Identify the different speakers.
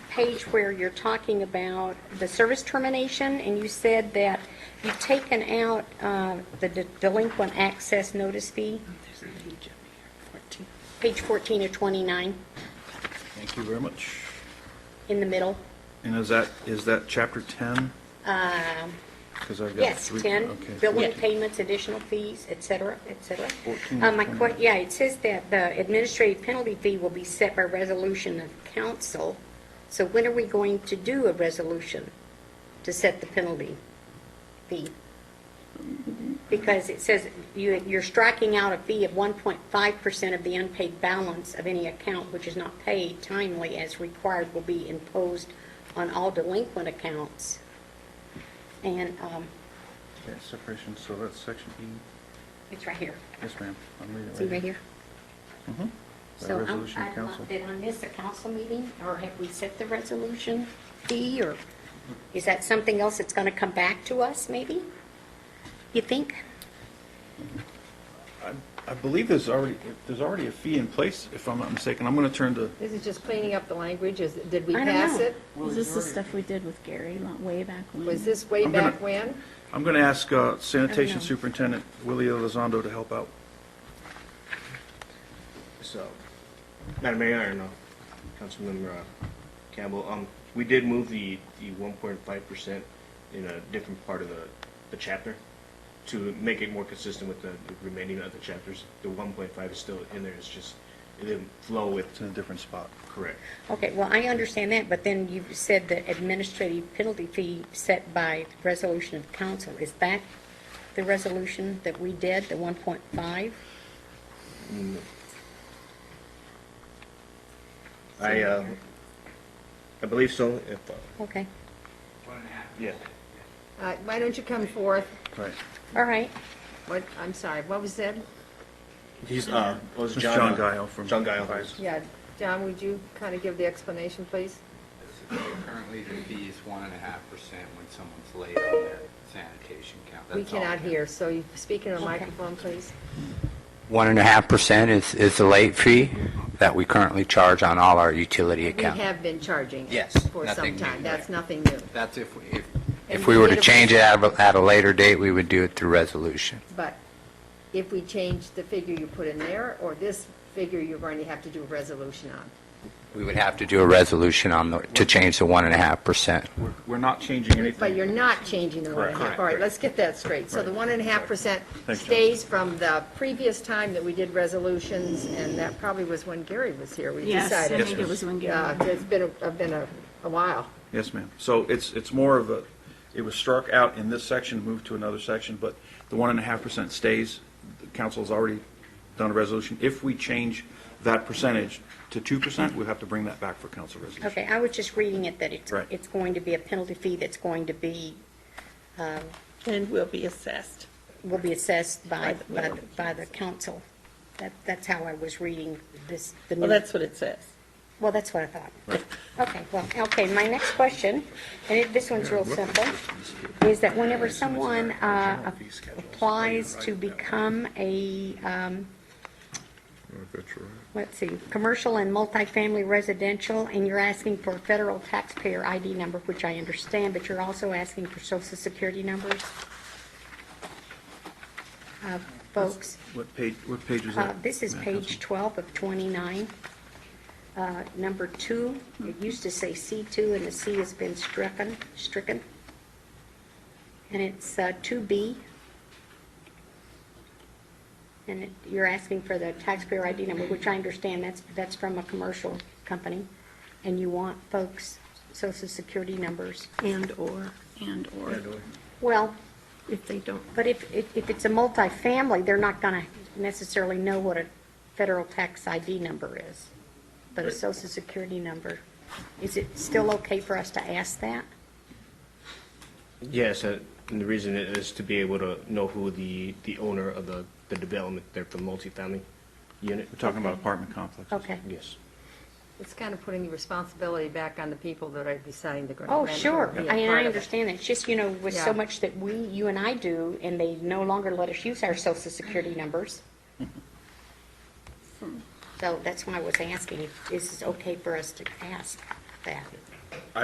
Speaker 1: page where you're talking about the service termination, and you said that you've taken out uh, the de- delinquent access notice fee, page 14 of 29,
Speaker 2: Thank you very much.
Speaker 1: in the middle.
Speaker 2: And is that, is that chapter 10? Because I've got
Speaker 1: Yes,
Speaker 2: three-
Speaker 1: 10,
Speaker 2: okay,
Speaker 1: building
Speaker 2: 14.
Speaker 1: payments, additional fees, et cetera, et cetera.
Speaker 2: 14
Speaker 1: Uh,
Speaker 2: and
Speaker 1: My
Speaker 2: 29.
Speaker 1: que, yeah, it says that the administrative penalty fee will be set by resolution of council. So when are we going to do a resolution to set the penalty fee? Because it says you, you're striking out a fee of 1.5% of the unpaid balance of any account which is not paid timely as required will be imposed on all delinquent accounts. And, um,
Speaker 2: Okay, separation, so that's section E.
Speaker 1: it's right here.
Speaker 2: Yes, ma'am. I'm reading it
Speaker 1: See right here?
Speaker 2: Mhm. By
Speaker 1: So I'm,
Speaker 2: resolution of
Speaker 1: I'm,
Speaker 2: council.
Speaker 1: not- did I miss a council meeting, or have we set the resolution fee, or is that something else that's gonna come back to us, maybe? You think?
Speaker 2: I believe there's already, there's already a fee in place, if I'm not mistaken. I'm going to turn to,
Speaker 3: This is just cleaning up the language, is, did we
Speaker 1: I don't
Speaker 3: pass
Speaker 1: know.
Speaker 3: it?
Speaker 4: Is this the stuff we did with Gary lo- way back when?
Speaker 3: Was this way
Speaker 2: I'm gonna-
Speaker 3: back when?
Speaker 2: I'm going to ask uh, sanitation
Speaker 1: know.
Speaker 2: superintendent Willie Elizondo to help out.
Speaker 5: So, Madam Mayor, and uh, Councilmember uh, Campbell, um, we did move the, the one point five percent in a different part of the, the chapter to make it more consistent with the the remaining other chapters. The one point five is still in there, it's just, it didn't flow with,
Speaker 2: It's in a different spot.
Speaker 5: correct.
Speaker 1: Okay, well, I understand that, but then you said the administrative penalty fee set by resolution of council, is that the resolution that we did, the one point five?
Speaker 5: I, uh, I believe so, if, uh,
Speaker 1: Okay,
Speaker 5: yeah.
Speaker 3: Uh, Why don't you come forth?
Speaker 2: Right.
Speaker 1: all right,
Speaker 3: What, I'm sorry, what was that?
Speaker 5: He's, uh, it was
Speaker 2: It's
Speaker 5: John.
Speaker 2: John
Speaker 5: uh,
Speaker 2: Guile from-
Speaker 5: John Guile.
Speaker 3: Yeah, John, would you kind of give the explanation, please?
Speaker 6: Currently, the fee is one and a half percent when someone's late on their sanitation count.
Speaker 3: We
Speaker 6: That's all.
Speaker 3: cannot hear, so you speak in a microphone, please.
Speaker 6: One and a half percent is, is the late fee that we currently charge on all our utility
Speaker 3: We
Speaker 6: accounts.
Speaker 3: have been charging it
Speaker 6: Yes,
Speaker 3: for some
Speaker 6: nothing new,
Speaker 3: time, that's
Speaker 6: right.
Speaker 3: nothing new.
Speaker 6: That's if, we- if,
Speaker 3: And
Speaker 6: if we were to
Speaker 3: if-
Speaker 6: change it at a, at a later date, we would do it through resolution.
Speaker 3: But if we change the figure you put in there, or this figure, you're going to have to do a resolution on.
Speaker 6: We would have to do a resolution on the, to change the one and a half percent.
Speaker 2: We're- We're not changing anything.
Speaker 3: But you're not changing the one and a half.
Speaker 2: Correct.
Speaker 3: All right, let's get that straight. So the one and a half percent
Speaker 2: Thanks, John.
Speaker 3: stays from the previous time that we did resolutions, and that probably was when Gary was here. We
Speaker 4: Yes, I
Speaker 3: decided.
Speaker 4: think it was when Gary.
Speaker 3: Uh, It's been, a- uh, been a, a while.
Speaker 2: Yes, ma'am. So it's, it's more of a, it was struck out in this section, moved to another section, but the one and a half percent stays. The council's already done a resolution. If we change that percentage to two percent, we'll have to bring that back for council resolution.
Speaker 1: okay, I was just reading it that it's,
Speaker 2: Right.
Speaker 1: it's going to be a penalty fee that's going to be
Speaker 7: And will be assessed.
Speaker 1: will be assessed by,
Speaker 7: By
Speaker 1: by,
Speaker 7: the-
Speaker 1: the- by the council. That, that's how I was reading this, the new.
Speaker 7: Well, that's what it says.
Speaker 1: Well, that's what I thought. Okay, well, okay, my next question, and it- this one's real simple, is that whenever someone uh, applies to become a, um, let's see, commercial and multifamily residential, and you're asking for a federal taxpayer ID number, which I understand, but you're also asking for social security numbers? Uh, Folks?
Speaker 2: What page, what page is
Speaker 1: Uh,
Speaker 2: that?
Speaker 1: This is
Speaker 2: Madam
Speaker 1: page 12 of 29. Uh, Number two, it used to say C2, and the C has been stricken, stricken. And it's uh, 2B. And it- you're asking for the taxpayer ID number, which I understand, that's, that's from a commercial company. And you want folks' social security numbers.
Speaker 7: And/or
Speaker 4: And/or
Speaker 1: Well,
Speaker 7: if they don't.
Speaker 1: but if, if if it's a multifamily, they're not going to necessarily know what a federal tax ID number is, but a social security number. Is it still okay for us to ask that?
Speaker 5: Yes, uh, and the reason is to be able to know who the, the owner of the, the development there for the multifamily unit.
Speaker 2: We're talking about apartment complexes.
Speaker 1: Okay.
Speaker 5: Yes.
Speaker 3: It's kind of putting the responsibility back on the people that are deciding the grant.
Speaker 1: Oh,
Speaker 3: rent or
Speaker 1: sure.
Speaker 3: be a
Speaker 1: I- And
Speaker 3: part
Speaker 1: I
Speaker 3: of it.
Speaker 1: understand that. It's just, you know, with
Speaker 3: Yeah.
Speaker 1: so much that we, you and I do, and they no longer let us use our social security numbers. So that's why I was asking, if this is okay for us to ask that?